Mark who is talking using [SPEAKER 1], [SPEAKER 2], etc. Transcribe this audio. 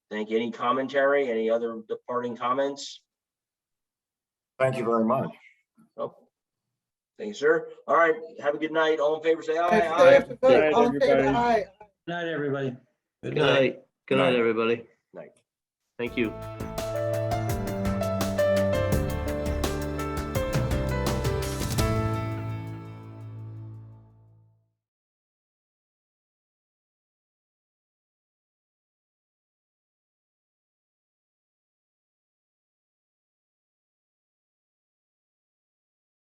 [SPEAKER 1] Thank you. Any commentary? Any other departing comments?
[SPEAKER 2] Thank you very much.
[SPEAKER 1] Nope. Thank you, sir. All right. Have a good night. All in favor, say aye.
[SPEAKER 3] I
[SPEAKER 1] aye.
[SPEAKER 3] have to vote. All in favor,
[SPEAKER 4] everybody.
[SPEAKER 3] aye.
[SPEAKER 5] Night, everybody.
[SPEAKER 4] Good
[SPEAKER 6] Good night. Good night, everybody.
[SPEAKER 1] Night.
[SPEAKER 6] Thank you.